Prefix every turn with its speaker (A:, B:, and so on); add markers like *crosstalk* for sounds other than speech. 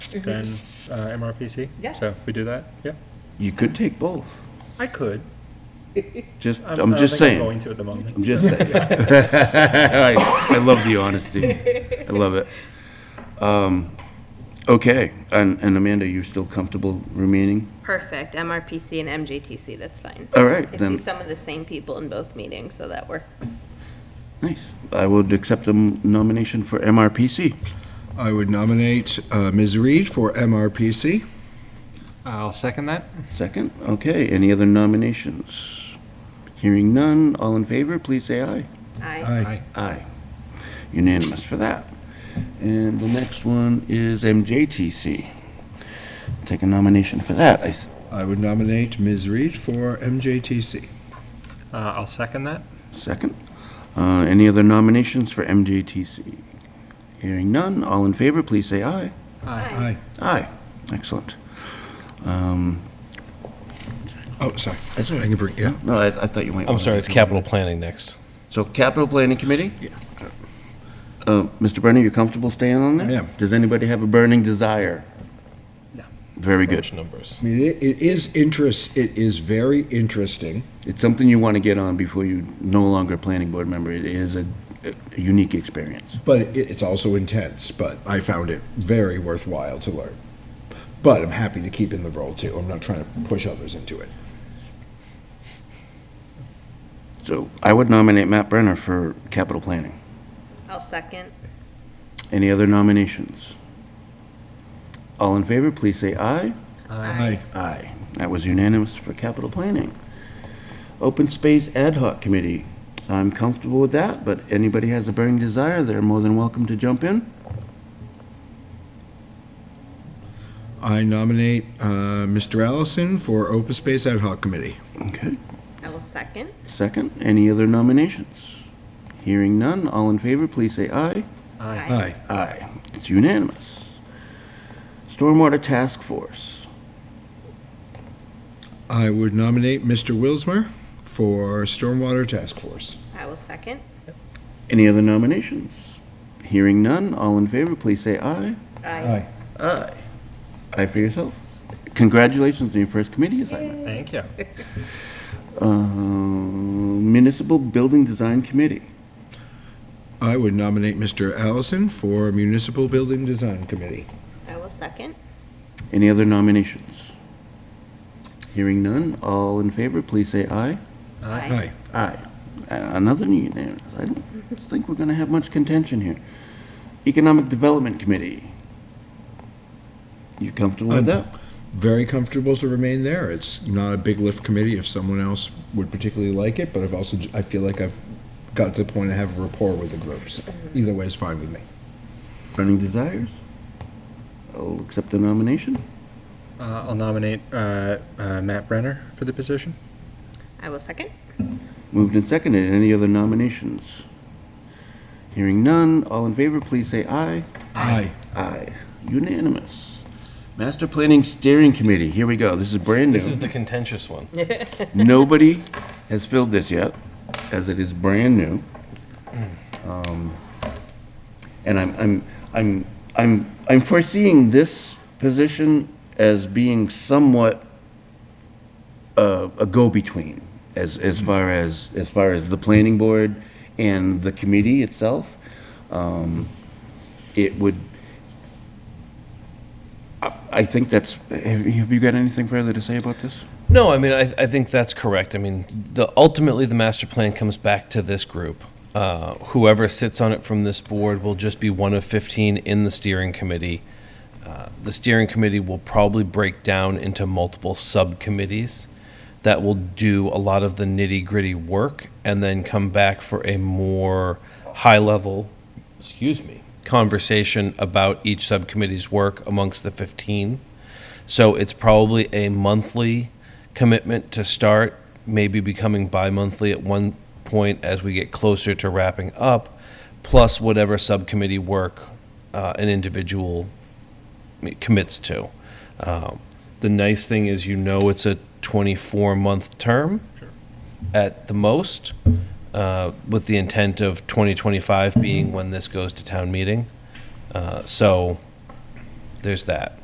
A: than uh, MRPC?
B: Yeah.
A: So if we do that, yeah,
C: You could take both.
A: I could.
C: Just,
A: I
C: I'm
A: don't
C: just
A: think
C: saying.
A: I'm going to at the moment.
C: I'm just saying. *laughs* I, I love the honesty. I love it. Um, okay, and, and Amanda, you still comfortable remaining?
D: Perfect, MRPC and MJTC, that's fine.
C: All right,
D: I see
C: then.
D: some of the same people in both meetings, so that works.
C: Nice. I would accept the m- nomination for MRPC.
E: I would nominate uh, Ms. Reed for MRPC.
F: I'll second that.
C: Second. Okay, any other nominations? Hearing none, all in favor, please say aye.
D: Aye.
C: Aye. Unanimous for that. And the next one is MJTC. Take a nomination for that. I s-
E: I would nominate Ms. Reed for MJTC.
A: Uh, I'll second that.
C: Second. Uh, Any other nominations for MJTC? Hearing none, all in favor, please say aye.
E: Aye.
C: Aye. Excellent. Um,
E: Oh, sorry. That's what I can bring, yeah.
C: No, I I thought you might.
G: I'm
C: wanna-
G: sorry, it's capital planning next.
C: So Capital Planning Committee? Yeah. Mr. Brennan, you comfortable staying on there?
E: I am.
C: Does anybody have a burning desire?
A: No.
C: Very good.
G: Bunch of numbers.
E: I mean, it it is interest, it is very interesting.
C: It's something you want to get on before you no longer a planning board member. It is a a unique experience.
E: But it- it's also intense, but I found it very worthwhile to learn. But I'm happy to keep in the role too. I'm not trying to push others into it.
C: So I would nominate Matt Brenner for Capital Planning.
D: I'll second.
C: Any other nominations? All in favor, please say aye.
E: Aye.
C: Aye. That was unanimous for capital planning. Open Space Ad Hoc Committee. I'm comfortable with that, but anybody has a burning desire, they're more than welcome to jump in.
E: I nominate uh, Mr. Allison for Open Space Ad Hoc Committee.
C: Okay.
D: I will second.
C: Second, any other nominations? Hearing none, all in favor, please say aye.
E: Aye.
C: Aye. It's unanimous. Stormwater Task Force.
E: I would nominate Mr. Wilsmer for Stormwater Task Force.
D: I will second.
C: Any other nominations? Hearing none, all in favor, please say aye.
D: Aye.
C: Aye. Aye for yourself. Congratulations on your first committee assignment.
A: Thank you.
C: Uh, Municipal Building Design Committee.
E: I would nominate Mr. Allison for Municipal Building Design Committee.
D: I will second.
C: Any other nominations? Hearing none, all in favor, please say aye.
D: Aye.
C: Aye. Another unanimous. I don't think we're going to have much contention here. Economic Development Committee. You comfortable with that?
E: Very comfortable to remain there. It's not a big lift committee if someone else would particularly like it, but I've also, I feel like I've got to the point I have rapport with the group, so either way is fine with me.
C: Burning desires? I'll accept the nomination.
A: Uh, I'll nominate uh, uh, Matt Brenner for the position.
D: I will second.
C: Moved and seconded. Any other nominations? Hearing none, all in favor, please say aye.
E: Aye.
C: Aye. Unanimous. Master Planning Steering Committee, here we go. This is brand new.
G: This is the contentious one.
C: Nobody has filled this yet, as it is brand new. Um, And I'm, I'm, I'm, I'm, I'm foreseeing this position as being somewhat uh, a go-between as, as far as, as far as the planning board and the committee itself. Um, It would, I- I think that's, have you- have you got anything further to say about this?
G: No, I mean, I, I think that's correct. I mean, the, ultimately, the master plan comes back to this group. Uh, whoever sits on it from this board will just be one of 15 in the steering committee. Uh, the steering committee will probably break down into multiple subcommittees that will do a lot of the nitty gritty work and then come back for a more high level, excuse me, conversation about each subcommittee's work amongst the 15. So it's probably a monthly commitment to start, maybe becoming bi-monthly at one point as we get closer to wrapping up, plus whatever subcommittee work uh, an individual commits to. Um, The nice thing is you know it's a 24-month term at the most, uh, with the intent of 2025 being when this goes to town meeting. Uh, So there's that.